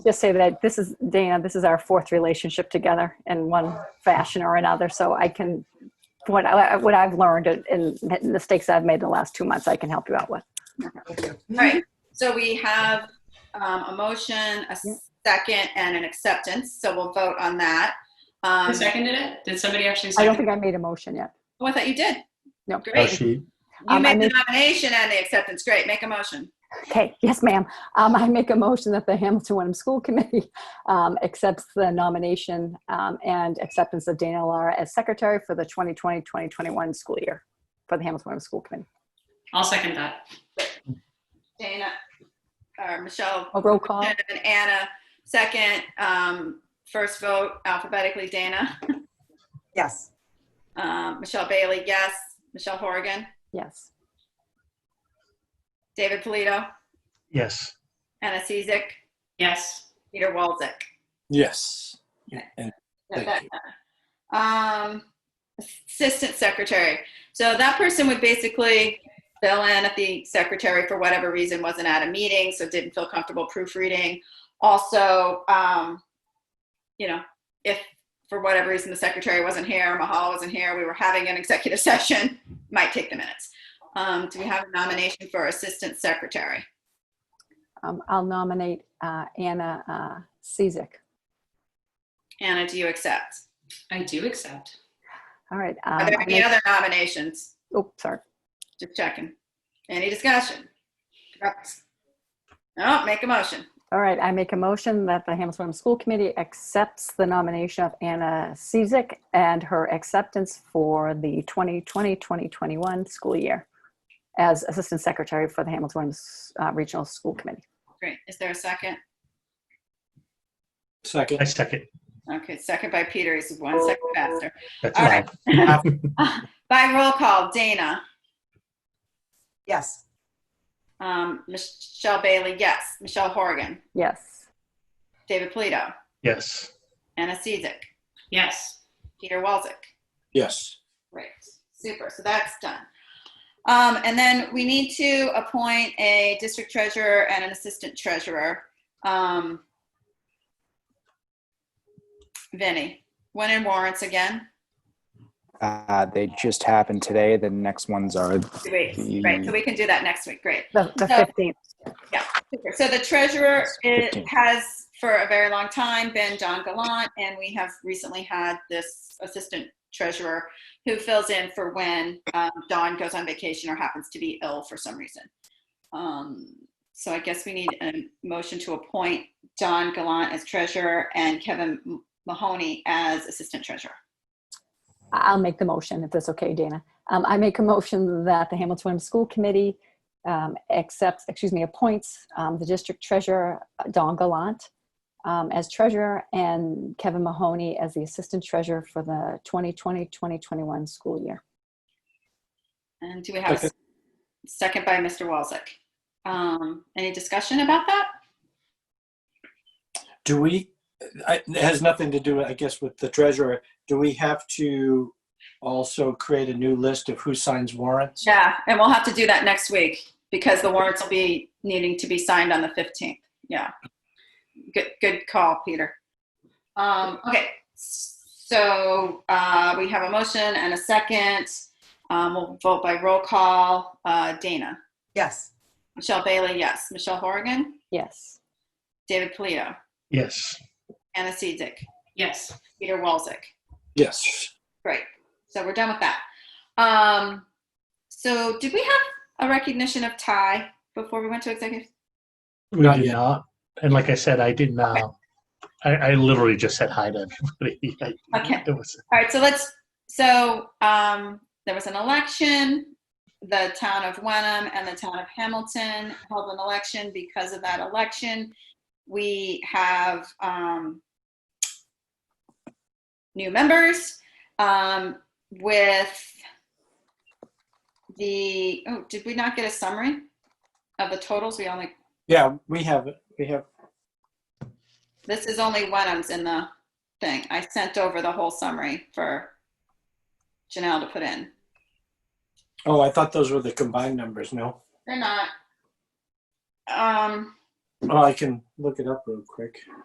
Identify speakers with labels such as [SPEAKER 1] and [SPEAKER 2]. [SPEAKER 1] just say that this is, Dana, this is our fourth relationship together in one fashion or another. So I can, what, I, what I've learned and and mistakes I've made in the last two months, I can help you out with.
[SPEAKER 2] All right,
[SPEAKER 3] Mm-hmm.
[SPEAKER 2] so we have um, a motion, a second, and an acceptance, so we'll vote on that. Um,
[SPEAKER 3] Who seconded it? Did somebody actually
[SPEAKER 1] I don't
[SPEAKER 3] second?
[SPEAKER 1] think I made a motion yet.
[SPEAKER 2] oh, I thought you did.
[SPEAKER 1] No.
[SPEAKER 4] Oh,
[SPEAKER 2] Great.
[SPEAKER 4] she,
[SPEAKER 2] You
[SPEAKER 1] Um, I
[SPEAKER 2] made the nomination and the acceptance. Great, make a motion.
[SPEAKER 1] Okay, yes, ma'am. Um, I make a motion that the Hamilton Wenham School Committee um, accepts the nomination um, and acceptance of Dana Lara as secretary for the 2020-2021 school year for the Hamilton Wenham School Committee.
[SPEAKER 3] I'll second that.
[SPEAKER 2] Dana, or Michelle,
[SPEAKER 1] A roll
[SPEAKER 3] Oh.
[SPEAKER 1] call?
[SPEAKER 2] and then Anna, second. Um, First vote alphabetically, Dana.
[SPEAKER 5] Yes.
[SPEAKER 2] Um, Michelle Bailey, yes. Michelle Horrigan,
[SPEAKER 1] Yes.
[SPEAKER 2] David Polito,
[SPEAKER 6] Yes.
[SPEAKER 2] Anna Cizik,
[SPEAKER 3] Yes.
[SPEAKER 2] Peter Walczek.
[SPEAKER 7] Yes. And Thank
[SPEAKER 2] Um, assistant secretary. So that person would basically fill in if the secretary, for whatever reason, wasn't at a meeting, so didn't feel comfortable proofreading. Also, um, you know, if for whatever reason the secretary wasn't here, Mahal wasn't here, we were having an executive session, might take the minutes. Um, do we have a nomination for assistant secretary?
[SPEAKER 1] Um, I'll nominate uh, Anna uh, Cizik.
[SPEAKER 2] Anna, do you accept?
[SPEAKER 3] I do accept.
[SPEAKER 1] All right.
[SPEAKER 2] Are
[SPEAKER 1] um,
[SPEAKER 2] there
[SPEAKER 1] I
[SPEAKER 2] any
[SPEAKER 1] make-
[SPEAKER 2] other nominations?
[SPEAKER 1] Oh, sorry.
[SPEAKER 2] Just checking. Any discussion? No, make a motion.
[SPEAKER 1] All right, I make a motion that the Hamilton Wenham School Committee accepts the nomination of Anna Cizik and her acceptance for the 2020-2021 school year as Assistant Secretary for the Hamilton Wenham uh, Regional School Committee.
[SPEAKER 2] Great. Is there a second?
[SPEAKER 6] I
[SPEAKER 7] second.
[SPEAKER 6] second.
[SPEAKER 2] Okay, second by Peter. He's one second faster.
[SPEAKER 6] That's
[SPEAKER 2] All
[SPEAKER 6] right.
[SPEAKER 2] right. By roll call, Dana,
[SPEAKER 5] Yes.
[SPEAKER 2] um, Michelle Bailey, yes. Michelle Horgan,
[SPEAKER 1] Yes.
[SPEAKER 2] David Polito,
[SPEAKER 6] Yes.
[SPEAKER 2] Anna Seizik,
[SPEAKER 3] Yes.
[SPEAKER 2] Peter Walczek.
[SPEAKER 7] Yes.
[SPEAKER 2] Great, super, so that's done. Um, and then we need to appoint a district treasurer and an assistant treasurer. Um, Vinnie, when in warrants again?
[SPEAKER 8] Uh, they just happened today. The next ones are
[SPEAKER 2] Great, great, so we can do that next week, great.
[SPEAKER 1] The the
[SPEAKER 2] So-
[SPEAKER 1] 15th.
[SPEAKER 2] Super. So the treasurer it
[SPEAKER 8] It's 15.
[SPEAKER 2] has for a very long time been John Gallant, and we have recently had this assistant treasurer who fills in for when um, Dawn goes on vacation or happens to be ill for some reason. Um, so I guess we need a motion to appoint Don Gallant as treasurer and Kevin Mahoney as assistant treasurer.
[SPEAKER 1] I'll make the motion if that's okay, Dana. Um, I make a motion that the Hamilton Wenham School Committee um, accepts, excuse me, appoints um, the district treasurer, uh, Don Gallant, um, as treasurer and Kevin Mahoney as the assistant treasurer for the 2020, 2021 school year.
[SPEAKER 2] And do we have a s- second by Mr. Walczek? Um, any discussion about that?
[SPEAKER 7] Do we, I- it has nothing to do, I guess, with the treasurer. Do we have to also create a new list of who signs warrants?
[SPEAKER 2] Yeah, and we'll have to do that next week because the warrants will be needing to be signed on the 15th. Yeah. Good, good call, Peter. Um, okay, so uh, we have a motion and a second. Um, we'll vote by roll call. Uh, Dana,
[SPEAKER 5] Yes.
[SPEAKER 2] Michelle Bailey, yes. Michelle Horrigan,
[SPEAKER 1] Yes.
[SPEAKER 2] David Polito,
[SPEAKER 6] Yes.
[SPEAKER 2] Anna Seizik,
[SPEAKER 3] Yes.
[SPEAKER 2] Peter Walczek.
[SPEAKER 7] Yes.
[SPEAKER 2] Great. So we're done with that. Um, so did we have a recognition of tie before we went to executive?
[SPEAKER 6] We
[SPEAKER 7] Not
[SPEAKER 6] did
[SPEAKER 7] yet.
[SPEAKER 6] not. And like I said, I didn't. Uh, I, I literally just said hi to everybody. I-
[SPEAKER 2] Okay.
[SPEAKER 6] It was
[SPEAKER 2] All right, so let's, so um, there was an election. The town of Wenham and the town of Hamilton held an election. Because of that election, we have um, new members um, with the, oh, did we not get a summary of the totals? We only,
[SPEAKER 7] Yeah, we have, it. we have,
[SPEAKER 2] this is only Wenham's in the thing. I sent over the whole summary for Janelle to put in.
[SPEAKER 7] oh, I thought those were the combined numbers, no?
[SPEAKER 2] They're not. Um,
[SPEAKER 7] Oh, I can look it up real quick.